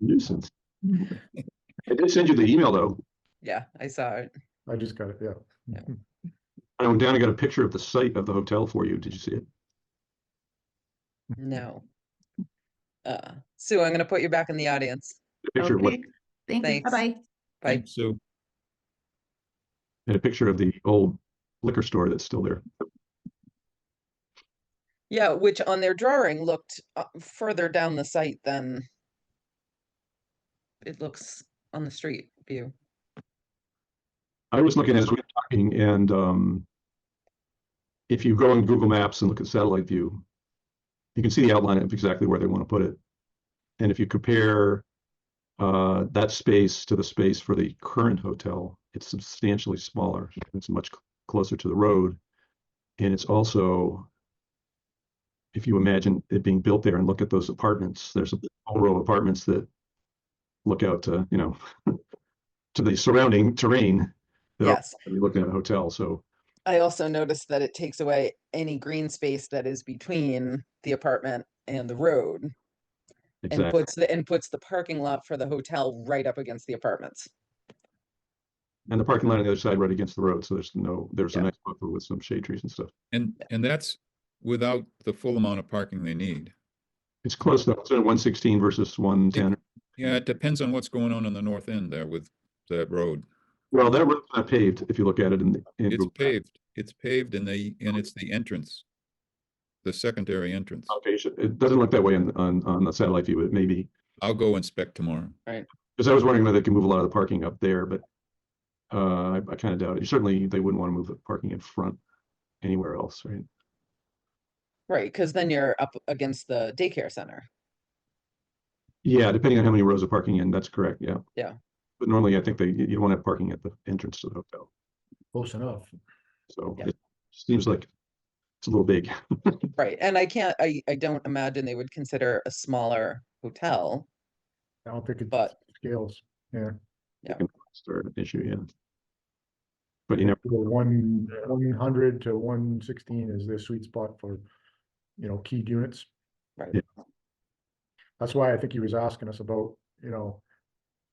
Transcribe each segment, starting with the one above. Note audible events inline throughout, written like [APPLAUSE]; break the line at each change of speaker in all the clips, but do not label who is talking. nuisance. I did send you the email though.
Yeah, I saw it.
I just got it, yeah.
I went down and got a picture of the site of the hotel for you. Did you see it?
Mm-hmm.
No. Uh, Sue, I'm gonna put you back in the audience.
A picture of what,
Okay. Thank you.
Thanks.
Bye-bye.
Bye.
So,
and a picture of the old liquor store that's still there.
Yeah, which on their drawing looked uh, further down the site than it looks on the street view.
I was looking as we were talking and um if you go on Google Maps and look at satellite view, you can see the outline of exactly where they want to put it. And if you compare uh that space to the space for the current hotel, it's substantially smaller. It's much cl- closer to the road. And it's also if you imagine it being built there and look at those apartments, there's a whole row of apartments that look out to, you know, [LAUGHS] to the surrounding terrain that
Yes,
you're looking at a hotel, so
I also noticed that it takes away any green space that is between the apartment and the road and
exactly.
puts the, and puts the parking lot for the hotel right up against the apartments.
And the parking lot on the other side right against the road, so there's no, there's a
Yeah.
nice buffer with some shade trees and stuff.
and, and that's without the full amount of parking they need.
It's close though, it's one sixteen versus one ten.
Yeah, it depends on what's going on in the north end there with that road.
Well, that road's not paved, if you look at it in. the- in
It's
Google Maps.
paved, it's paved and they, and it's the entrance. The secondary entrance.
Not paved. It doesn't look that way on, on, on the satellite view, it may be,
I'll go inspect tomorrow.
because I was wondering whether they can move a lot of the parking up there, but uh, I, I kind of doubt it. Certainly, they wouldn't want to move the parking in front anywhere else, right?
Right, because then you're up against the daycare center.
Yeah, depending on how many rows of parking in, that's correct, yeah.
Yeah.
But normally, I think they, you don't have parking at the entrance to the hotel.
Close enough.
So
Yeah.
it seems like it's a little big. [LAUGHS]
Right, and I can't, I, I don't imagine they would consider a smaller hotel,
I don't think it
but
scales, yeah.
Start an issue, yeah. But you know,
Well, One, one hundred to one sixteen is their sweet spot for, you know, keyed units.
Right.
Yeah.
That's why I think he was asking us about, you know,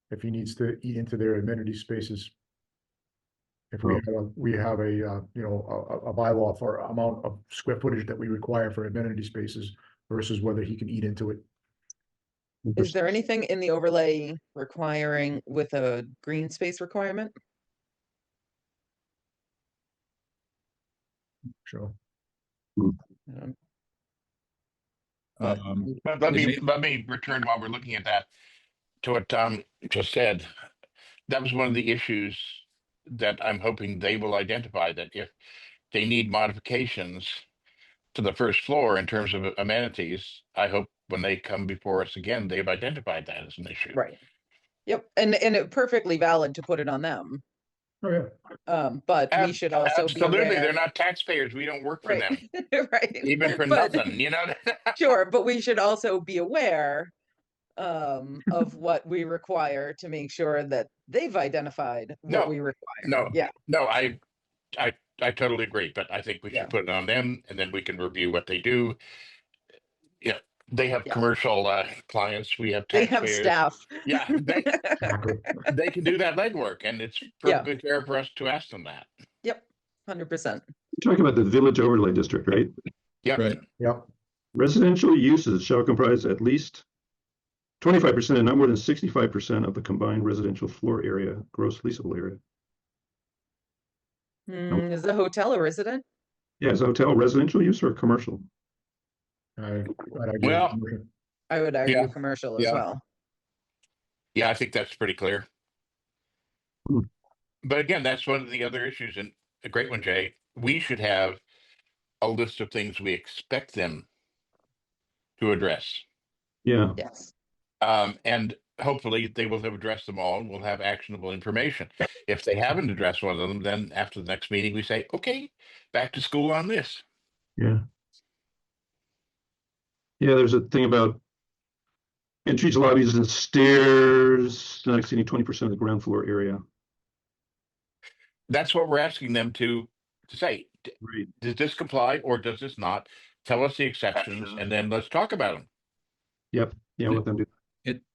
if he needs to eat into their amenity spaces. If we
Well-
have, a- we have a, uh, you know, a, a- a bylaw for amount of square footage that we require for amenity spaces versus whether he can eat into it.
is there anything in the overlay requiring with a green space requirement?
Sure.
I don't- But-
Um,
Let let
They
me,
may-
let me return while we're looking at that, to what Tom just said. That was one of the issues that I'm hoping they will identify, that if they need modifications to the first floor in terms of amenities, I hope when they come before us again, they've identified that as an issue.
Right. Yep, and, and it perfectly valid to put it on them,
Oh, yeah.
um, but we
Ab-
should also be
Absolutely, they're
aware.
not taxpayers. We don't work for them,
[LAUGHS] Right, right.
even for
but-
nothing, you know?
Sure, but we should also be aware um, of what we require to make sure that they've identified
No,
what we require.
No.
Yeah.
No, I, I, I totally agree, but I think we
Yeah.
should put it on them and then we can review what they do. Yeah, they have
Yeah.
commercial uh, clients, we have
They have
taxpayers.
staff.
Yeah,
[LAUGHS]
they,
Exactly.
they can do that legwork and it's
Yeah.
perfectly fair for us to ask them that.
Hundred percent.
you're talking about the village overlay district, right?
Yeah.
Right.
Yep,
Residential uses shall comprise at least twenty-five percent and not more than sixty-five percent of the combined residential floor area, gross leasable area.
Mm, is the hotel a resident?
Yeah, is hotel residential use or commercial?
I, glad I gave
Well,
him-
I would argue
Yeah,
commercial as
yeah.
well.
Yeah, I think that's pretty clear.
Hmm.
But again, that's one of the other issues and a great one, Jay. We should have a list of things we expect them to address.
Yeah,
Yes.
Um, and hopefully they will have addressed them all and we'll have actionable information. If they haven't addressed one of them, then after the next meeting, we say, okay, back to school on this.
yeah. Yeah, there's a thing about entries, lobbies and stairs, not exceeding twenty percent of the ground floor area.
That's what we're asking them to, to say. D-
Right.
Does this comply or does this not? Tell us the exceptions and then let's talk about them.
Yeah, let them do.
It,